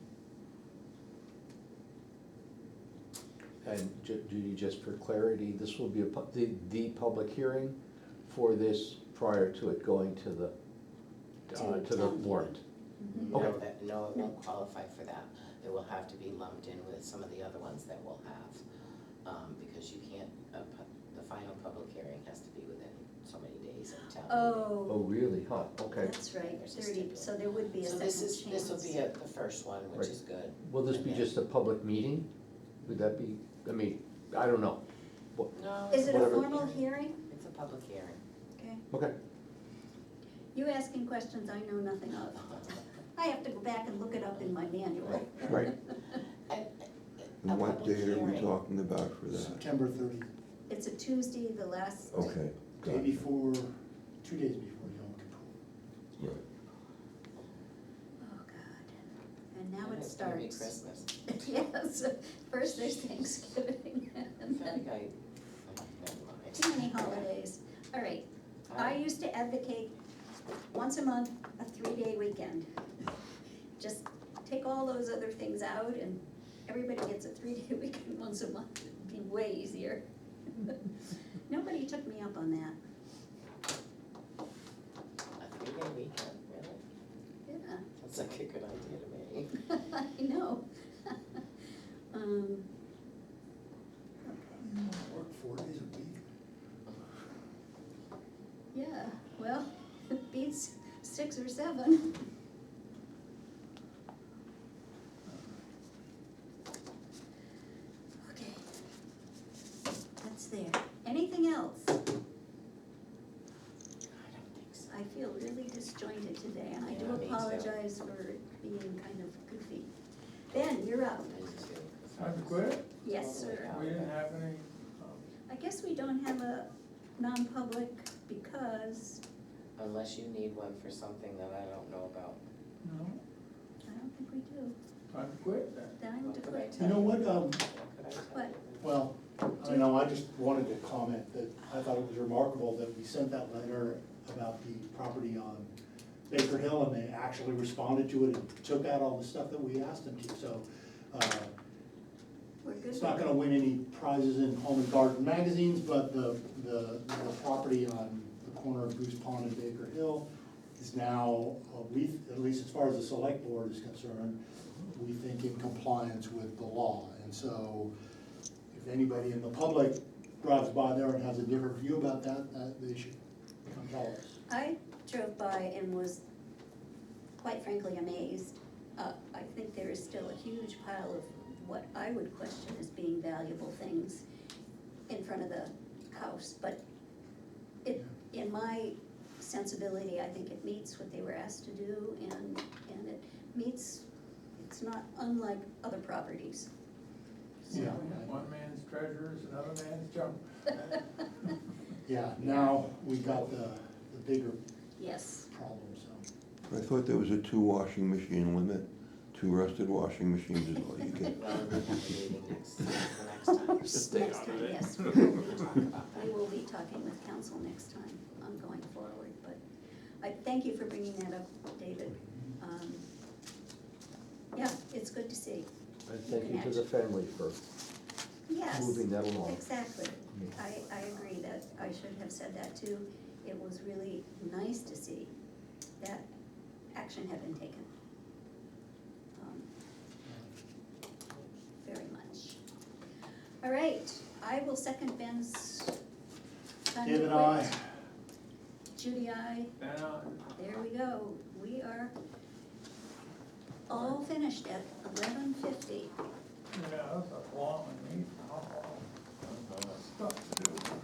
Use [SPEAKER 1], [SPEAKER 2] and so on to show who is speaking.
[SPEAKER 1] And Ju- Judy, just for clarity, this will be a, pu- the, the public hearing for this prior to it going to the, uh,
[SPEAKER 2] To
[SPEAKER 1] to the
[SPEAKER 2] town.
[SPEAKER 1] warrant.
[SPEAKER 3] No,
[SPEAKER 1] Okay.
[SPEAKER 3] that, no, it won't qualify for that. It will have to be lumped in with some of the other ones that we'll have, um, because you can't, uh, pu- the final public hearing has to be within so many days of town meeting.
[SPEAKER 1] Oh,
[SPEAKER 2] Oh,
[SPEAKER 1] really? Huh, okay.
[SPEAKER 2] that's right,
[SPEAKER 3] There's a
[SPEAKER 2] thirty,
[SPEAKER 3] stipulation.
[SPEAKER 2] so there would be a
[SPEAKER 3] So
[SPEAKER 2] second
[SPEAKER 3] this
[SPEAKER 2] chance.
[SPEAKER 3] is, this will be a- the first one, which
[SPEAKER 1] Right.
[SPEAKER 3] is good.
[SPEAKER 1] Will this be just a public meeting? Would that be, I mean, I don't know.
[SPEAKER 3] No.
[SPEAKER 2] Is it a
[SPEAKER 1] Whatever.
[SPEAKER 2] formal hearing?
[SPEAKER 3] It's a public hearing.
[SPEAKER 2] Okay,
[SPEAKER 1] Okay,
[SPEAKER 2] you asking questions I know nothing of. I have to go back and look it up in my manual.
[SPEAKER 1] right.
[SPEAKER 3] And,
[SPEAKER 4] And
[SPEAKER 3] A
[SPEAKER 4] what
[SPEAKER 3] public
[SPEAKER 4] date are we
[SPEAKER 3] hearing.
[SPEAKER 4] talking about for that?
[SPEAKER 5] September thirtieth,
[SPEAKER 2] It's a Tuesday, the last.
[SPEAKER 4] Okay, got
[SPEAKER 5] day
[SPEAKER 4] it,
[SPEAKER 5] before, two days before Yom Kippur.
[SPEAKER 4] right.
[SPEAKER 2] Oh, God, and now
[SPEAKER 3] and
[SPEAKER 2] it
[SPEAKER 3] it's gonna be
[SPEAKER 2] starts.
[SPEAKER 3] Christmas.
[SPEAKER 2] Yes, first there's Thanksgiving
[SPEAKER 3] I
[SPEAKER 2] and
[SPEAKER 3] feel
[SPEAKER 2] then
[SPEAKER 3] like I, I- never mind.
[SPEAKER 2] too many holidays. All right, I used to advocate once a month, a three-day weekend. Just take all those other things out and everybody gets a three-day weekend once a month, it'd be way easier. Nobody took me up on that,
[SPEAKER 3] A three-day weekend, really?
[SPEAKER 2] yeah.
[SPEAKER 3] That's like a good idea to me.
[SPEAKER 2] I know. Um,
[SPEAKER 5] Work four days a week.
[SPEAKER 2] yeah, well, beats six or seven. Okay. That's there. Anything else?
[SPEAKER 3] I don't think so.
[SPEAKER 2] I feel really disjointed today and I do
[SPEAKER 3] Yeah, me too.
[SPEAKER 2] apologize for being kind of goofy. Ben, you're up.
[SPEAKER 6] I'm good.
[SPEAKER 2] Yes, sir.
[SPEAKER 3] Yeah.
[SPEAKER 6] We didn't have any, um,
[SPEAKER 2] I guess we don't have a non-public because
[SPEAKER 3] Unless you need one for something that I don't know about.
[SPEAKER 6] no,
[SPEAKER 2] I don't think we do.
[SPEAKER 6] I'm good then.
[SPEAKER 2] Then I'm
[SPEAKER 3] What could I
[SPEAKER 2] declaring,
[SPEAKER 3] tell
[SPEAKER 5] You know what, um,
[SPEAKER 3] What could I tell
[SPEAKER 2] What?
[SPEAKER 3] you?
[SPEAKER 5] well, I don't know, I just wanted to comment that I thought it was remarkable that we sent that letter about the property on Baker Hill and they actually responded to it and took out all the stuff that we asked them to, so, uh,
[SPEAKER 2] we're good.
[SPEAKER 5] It's not gonna win any prizes in Home and Garden magazines, but the, the, the property on the corner of Goose Pond and Baker Hill is now, uh, we, at least as far as the select board is concerned, we think in compliance with the law. And so if anybody in the public drives by there and has a different view about that, that they should come tell us.
[SPEAKER 2] I drove by and was quite frankly amazed. Uh, I think there is still a huge pile of what I would question as being valuable things in front of the house, but it, in my sensibility, I think it meets what they were asked to do and, and it meets, it's not unlike other properties. So-
[SPEAKER 5] Yeah.
[SPEAKER 6] One man's treasure is another man's junk.
[SPEAKER 5] Yeah, now we got the, the bigger
[SPEAKER 2] Yes,
[SPEAKER 5] problem, so.
[SPEAKER 4] I thought there was a two washing machine limit, two rusted washing machines is all you get.
[SPEAKER 3] Well, we have a meeting next, the next time.
[SPEAKER 1] Stay
[SPEAKER 2] next
[SPEAKER 1] out
[SPEAKER 2] time,
[SPEAKER 1] of it.
[SPEAKER 2] yes.
[SPEAKER 3] We'll talk about
[SPEAKER 2] We
[SPEAKER 3] that.
[SPEAKER 2] will be talking with council next time on going forward, but I thank you for bringing that up, David. Um, Yeah, it's good to see.
[SPEAKER 1] And thank you to the family for
[SPEAKER 2] Yes,
[SPEAKER 1] moving that along.
[SPEAKER 2] exactly. I, I agree that I should have said that too. It was really nice to see that action had been taken. Um, Very much. All right, I will second Ben's.
[SPEAKER 5] David, I.
[SPEAKER 2] Judy, I.
[SPEAKER 6] Then I,
[SPEAKER 2] There we go, we are all finished at eleven